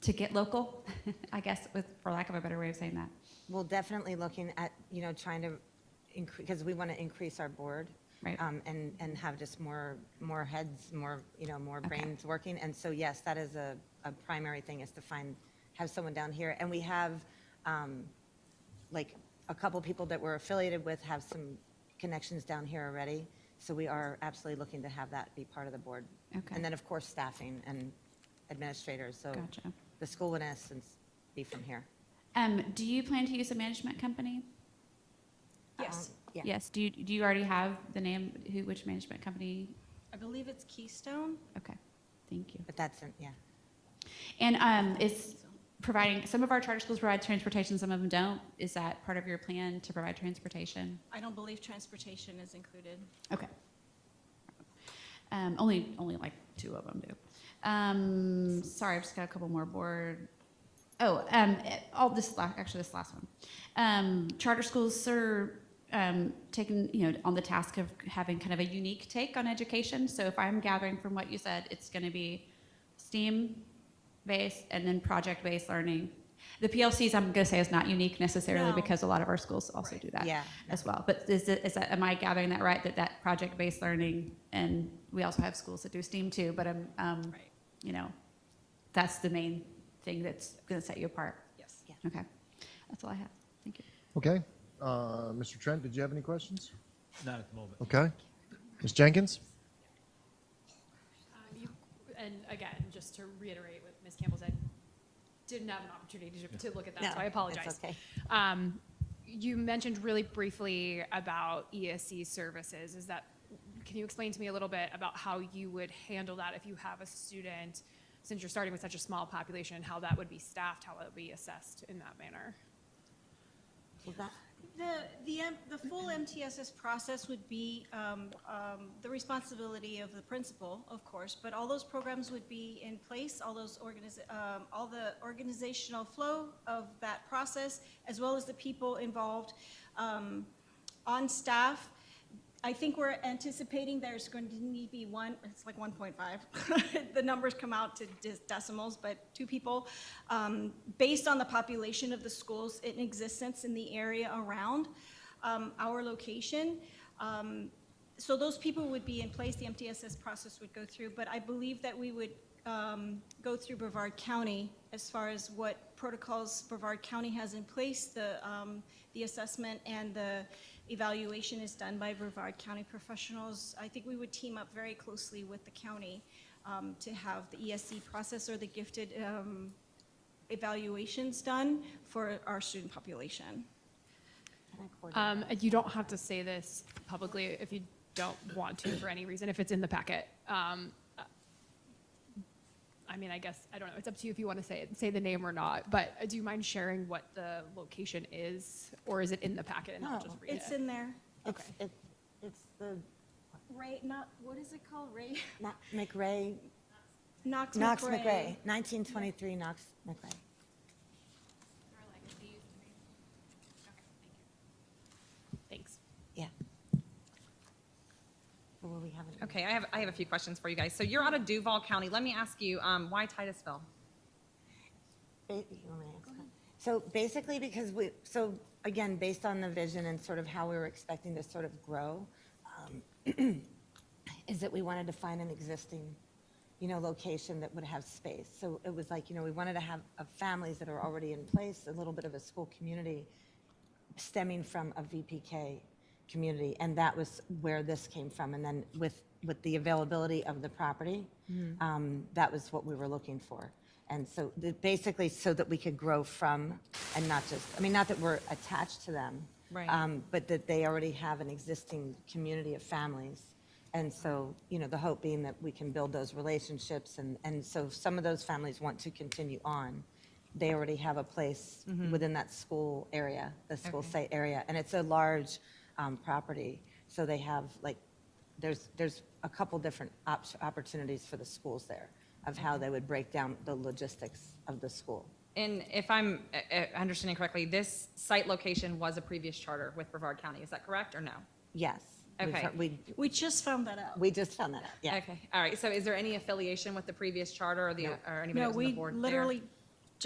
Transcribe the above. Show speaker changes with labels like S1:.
S1: to get local, I guess, with, for lack of a better way of saying that.
S2: Well, definitely looking at, you know, trying to increase, because we want to increase our board.
S1: Right.
S2: um, And, and have just more, more heads, more, you know, more brains working. And so, yes, that is a, a primary thing, is to find, have someone down here. And we have, um, like, a couple people that we're affiliated with have some connections down here already. So we are absolutely looking to have that be part of the board.
S1: Okay.
S2: And then, of course, staffing and administrators, so.
S1: Gotcha.
S2: The school would in essence be from here.
S1: Um, do you plan to use a management company?
S3: Yes,
S2: Um, Yeah.
S1: Yes. Do you, do you already have the name, who, which management company?
S3: I believe it's Keystone.
S1: Okay, thank you.
S2: But that's, in- yeah.
S1: And, um, is providing, some of our charter schools provide transportation, some of them don't. Is that part of your plan to provide transportation?
S3: I don't believe transportation is included.
S1: Okay. Um, only, only like two of them do. Um, sorry, I've just got a couple more board. Oh, um, all this la actually this last one. Um, charter schools are um, taking you know on the task of having kind of a unique take on education. So if I'm gathering from what you said, it's going to be STEAM based and then project based learning. The PLCs I'm going to say is not unique necessarily
S3: No.
S1: because a lot of our schools also do that
S2: Yeah.
S1: as well. But is, it, is that, am I gathering that right, that that project-based learning, and we also have schools that do STEAM too, but I'm, um,
S3: Right.
S1: you know, that's the main thing that's gonna set you apart.
S3: Yes.
S1: Okay, that's all I have. Thank you.
S4: Okay. Uh, Mr. Trent, did you have any questions?
S5: Not at the moment.
S4: Okay. Ms. Jenkins?
S6: Um, you- And again, just to reiterate what Ms. Campbell said, didn't have an opportunity to, to look at that, so I apologize.
S2: It's okay.
S6: Um, you mentioned really briefly about ESC services. Is that, can you explain to me a little bit about how you would handle that if you have a student, since you're starting with such a small population, how that would be staffed, how it would be assessed in that manner?
S2: Well, that-
S3: The, the, M- the full MTSS process would be um, um, the responsibility of the principal, of course, but all those programs would be in place, all those organiz, um, all the organizational flow of that process, as well as the people involved um, on staff. I think we're anticipating there's going to need to be one, it's like 1.5. The numbers come out to dis- decimals, but two people. um, Based on the population of the schools in existence in the area around um, our location. Um, So those people would be in place, the MTSS process would go through, but I believe that we would um, go through Brevard County as far as what protocols Brevard County has in place, the, um, the assessment and the evaluation is done by Brevard County professionals. I think we would team up very closely with the county um, to have the ESC process or the gifted um, evaluations done for our student population.
S2: can I coordinate?
S6: Um, and you don't have to say this publicly if you don't want to for any reason, if it's in the packet. Um, uh, I mean, I guess, I don't know, it's up to you if you want to say it, say the name or not, but uh, do you mind sharing what the location is? Or is it in the packet and I'll
S2: No,
S6: just read
S3: Oh, It's
S6: it?
S3: in there.
S2: It's, it- it's the,
S3: Ray, not, what is it called? Ray?
S2: not McRae,
S3: Knox McRae.
S2: Knox McRae, 1923 Knox McRae.
S6: Thanks.
S2: Yeah. Well, we haven't.
S7: Okay, I have, I have a few questions for you guys. So you're out of Duval County. Let me ask you, um, why Titusville?
S2: Ba- you want me to answer that? So basically, because we, so again, based on the vision and sort of how we were expecting to sort of grow, um, is that we wanted to find an existing, you know, location that would have space. So it was like, you know, we wanted to have uh, families that are already in place, a little bit of a school community stemming from a VPK community, and that was where this came from. And then with, with the availability of the property, um, that was what we were looking for. And so the- basically, so that we could grow from, and not just, I mean, not that we're attached to them.
S7: Right.
S2: um, But that they already have an existing community of families. And so, you know, the hope being that we can build those relationships, and, and so some of those families want to continue on they already have a place within that school area, the school site area, and it's a large um, property. So they have like, there's there's a couple different op- opportunities for the schools there of how they would break down the logistics of the school.
S7: And if I'm uh, uh, understanding correctly, this site location was a previous charter with Brevard County. Is that correct or no?
S2: Yes. We've
S7: Okay.
S2: heard- we
S3: We just found that out.
S2: we just found that out. Yeah.
S7: Okay, all right. So is there any affiliation with the previous charter or the, or anybody that
S3: No,
S7: was on the
S3: we
S7: board there?
S3: literally